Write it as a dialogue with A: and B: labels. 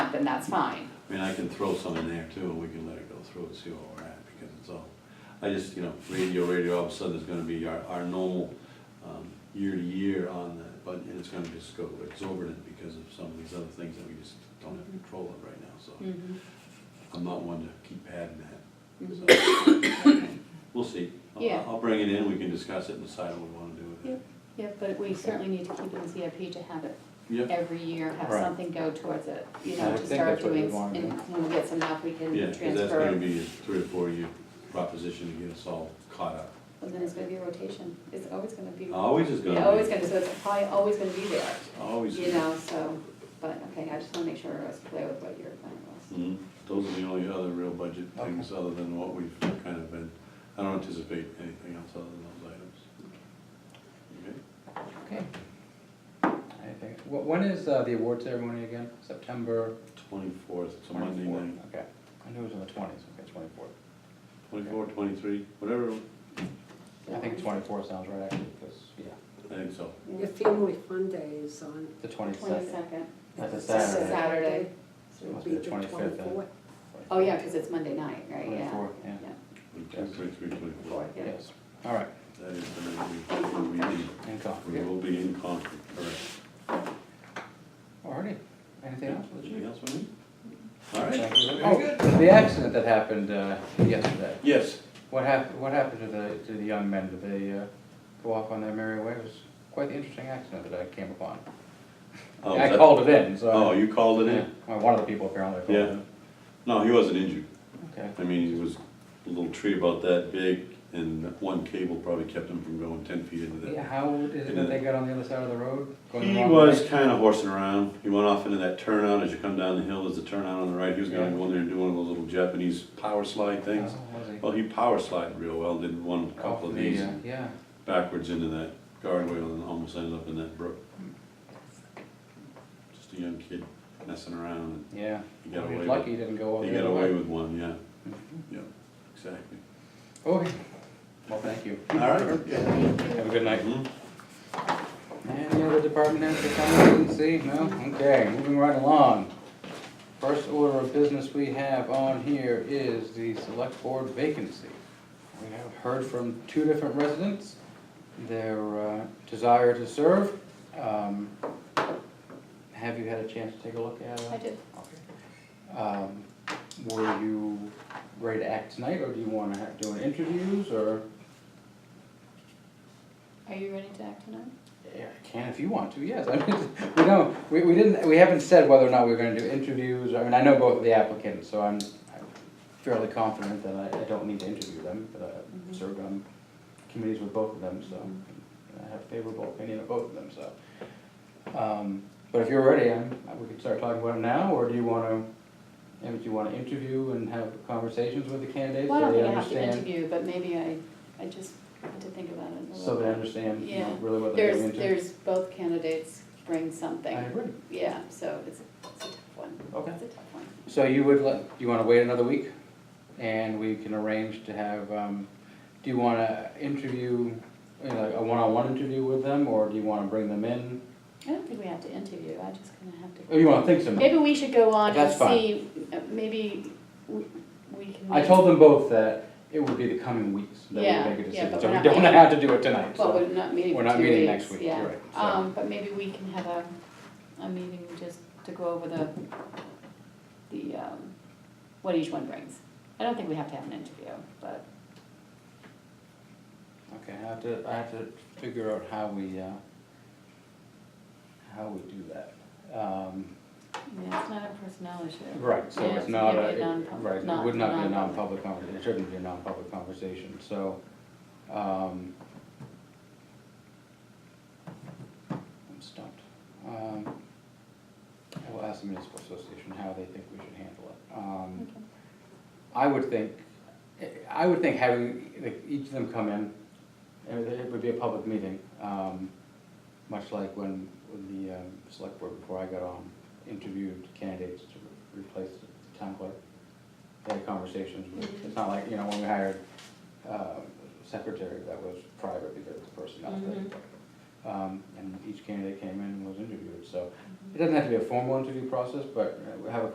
A: and that's fine.
B: I mean, I can throw some in there too, and we can let it go through and see where we're at, because it's all, I just, you know, radio, radio, all of a sudden, there's gonna be our, our normal, um, year to year on that, but, and it's gonna just go exorbitant because of some of these other things that we just don't have control of right now, so.
A: Mm. Mm-hmm.
B: I'm not one to keep adding that,
A: Mm-hmm.
B: so, we'll see. I'll-
A: Mm. Yeah.
B: I'll bring it in, we can discuss it and decide what we wanna do with it.
A: Yep. Yeah, but we certainly need to keep it in CIP to have it
B: Yep,
A: every year, have
C: Right.
A: something go towards it, you
C: I
A: know,
C: would
A: to
C: think
A: start
C: that's what
A: doing,
C: we'd wanna
A: and when we get some help, we can
B: yeah, because that's gonna
A: transfer.
B: be a three or four year proposition to get us all caught up.
A: And then it's gonna be a rotation, it's always gonna be,
B: Always is gonna
A: yeah,
B: be.
A: always gonna, so it's probably always gonna be there,
B: Always.
A: you know, so, but, okay, I just wanna make sure I was clear with what your plan was.
B: Mhm. Those are the only other real budget things other than what we've kind of been, I don't anticipate anything else other than those items. Okay?
C: Okay. Anything, wh- when is uh, the award ceremony again? September
B: Twenty-fourth, it's a Monday
C: twenty-fourth?
B: night,
C: Okay, I knew it was in the twenties, okay, twenty-fourth.
B: twenty-four, twenty-three, whatever,
C: I think twenty-four sounds right actually, because, yeah,
B: I think so.
D: Your family fun day is on.
C: the twenty-second.
A: Twenty-second,
C: That's a
D: it's
C: Saturday.
A: Saturday.
D: So it'll
C: Must
D: be
C: be the
D: the
C: 25th then.
D: twenty-fourth.
A: oh yeah, cause it's Monday night, right, yeah,
C: 24th, yeah. Yes.
B: 23, 24.
A: yeah.
C: Yes, all right,
B: That is the night we, we need,
C: and
B: we
C: coffee.
B: will be in Concord, correct.
C: All righty, anything else?
B: Anything else we need? All right,
C: Thank you.
B: very good.
C: Oh, the accident that happened uh, yesterday,
B: Yes,
C: what happened, what happened to the, to the young men? Did they uh, go off on their merry way? It was quite the interesting accident that I came upon.
B: Oh,
C: I
B: that-
C: called it in, so.
B: oh, you called it
C: Yeah,
B: in?
C: well, one of the people apparently called
B: Yeah.
C: it.
B: No, he wasn't injured.
C: Okay,
B: I mean, he was a little tree about that big, and one cable probably kept him from going ten feet into
C: Yeah,
B: that.
C: how is it that they got on the other side of the road? going the
B: He
C: wrong Oh,
B: was
C: way?
B: kinda horsing around, he went off into that turnout, as you come down the hill, there's a turnout on the right, he was gonna go in there and do one of those little Japanese power slide
C: Oh,
B: things.
C: was he?
B: Well, he power slided real well, did one couple
C: Off
B: of
C: the,
B: these,
C: uh, Yeah,
B: backwards into that guardrail and almost ended up in that brook. Just a young kid messing around,
C: yeah.
B: and he got away
C: He's
B: with
C: lucky he didn't go all
B: He
C: the
B: got
C: other
B: away
C: way.
B: with one, yeah, yeah, exactly.
C: Okay, well, thank you.
B: All right. yeah.
C: Have a good night.
B: Mhm.
C: Any other department heads to come in and see? No? Okay, moving right along. First order of business we have on here is the select board vacancy. We have heard from two different residents, their uh, desire to serve. Um, Have you had a chance to take a look at it?
A: I did,
C: Um, Were you ready to act tonight, or do you wanna have- do an interviews, or?
A: are you ready to act tonight?
C: Yeah, I can if you want to, yes. I mean, we don't, we, we didn't, we haven't said whether or not we're gonna do interviews, I mean, I know both of the applicants, so I'm I'm fairly confident that I, I don't need to interview them, but
A: Mhm.
C: I've served on committees with both of them, so
A: Mm-hmm.
C: and I have favorable opinion of both of them, so. Um, But if you're ready, I'm, we could start talking about it now, or do you wanna, and do you wanna interview and have conversations with the candidates,
A: Well, I
C: so
A: don't think I
C: they
A: have to
C: understand?
A: interview, but maybe I, I just had to think about it a
C: So
A: little
C: they
A: bit.
C: understand, you know,
A: Yeah.
C: really what they're getting
A: There's, there's,
C: into?
A: both candidates bring
C: I
A: something,
C: agree,
A: yeah, so it's, it's a tough one,
C: okay.
A: it's a tough one.
C: So you would let, you wanna wait another week? And we can arrange to have, um, do you wanna interview, you know, a one-on-one interview with them, or do you wanna bring them in?
A: I don't think we have to interview, I just kind of have
C: Or
A: to.
C: Oh, you wanna think some?
A: Maybe we should go on and
C: That's fine.
A: see, uh, maybe we we can.
C: I
A: make-
C: told them both that it would be the coming weeks that
A: Yeah,
C: we make a
A: yeah,
C: decision,
A: but
C: so
A: we're
C: we
A: not
C: don't
A: meeting-
C: have to do it tonight,
A: But we're
C: so.
A: not meeting
C: We're
A: for
C: not
A: two
C: meeting next
A: weeks,
C: week,
A: yeah.
C: you're right, so.
A: Um, but maybe we can have a, a meeting just to go over the, the, um, what each one brings. I don't think we have to have an interview, but,
C: Okay, I have to, I have to figure out how we, uh, how we do that. Um,
A: yeah, it's not a personnel issue.
C: Right, so
A: Yeah,
C: it's
A: so
C: not
A: it'd
C: a,
A: be a non-pub-
C: right, it
A: non-
C: would not be a
A: non-public.
C: non-public conversation, it shouldn't be a non-public conversation, so, um. I'm stumped. Um, I will ask the municipal association how they think we should handle it. Um,
A: Okay.
C: I would think, I would think having, like, each of them come in, it would- it would be a public meeting, um, much like when, when the um, select board, before I got on, interviewed candidates to replace the town clerk. They had conversations with, it's not like, you know, when we hired uh, secretary, that was private because of the personnel thing. Um, And each candidate came in and was interviewed, so it doesn't have to be a formal interview process, but uh, we have a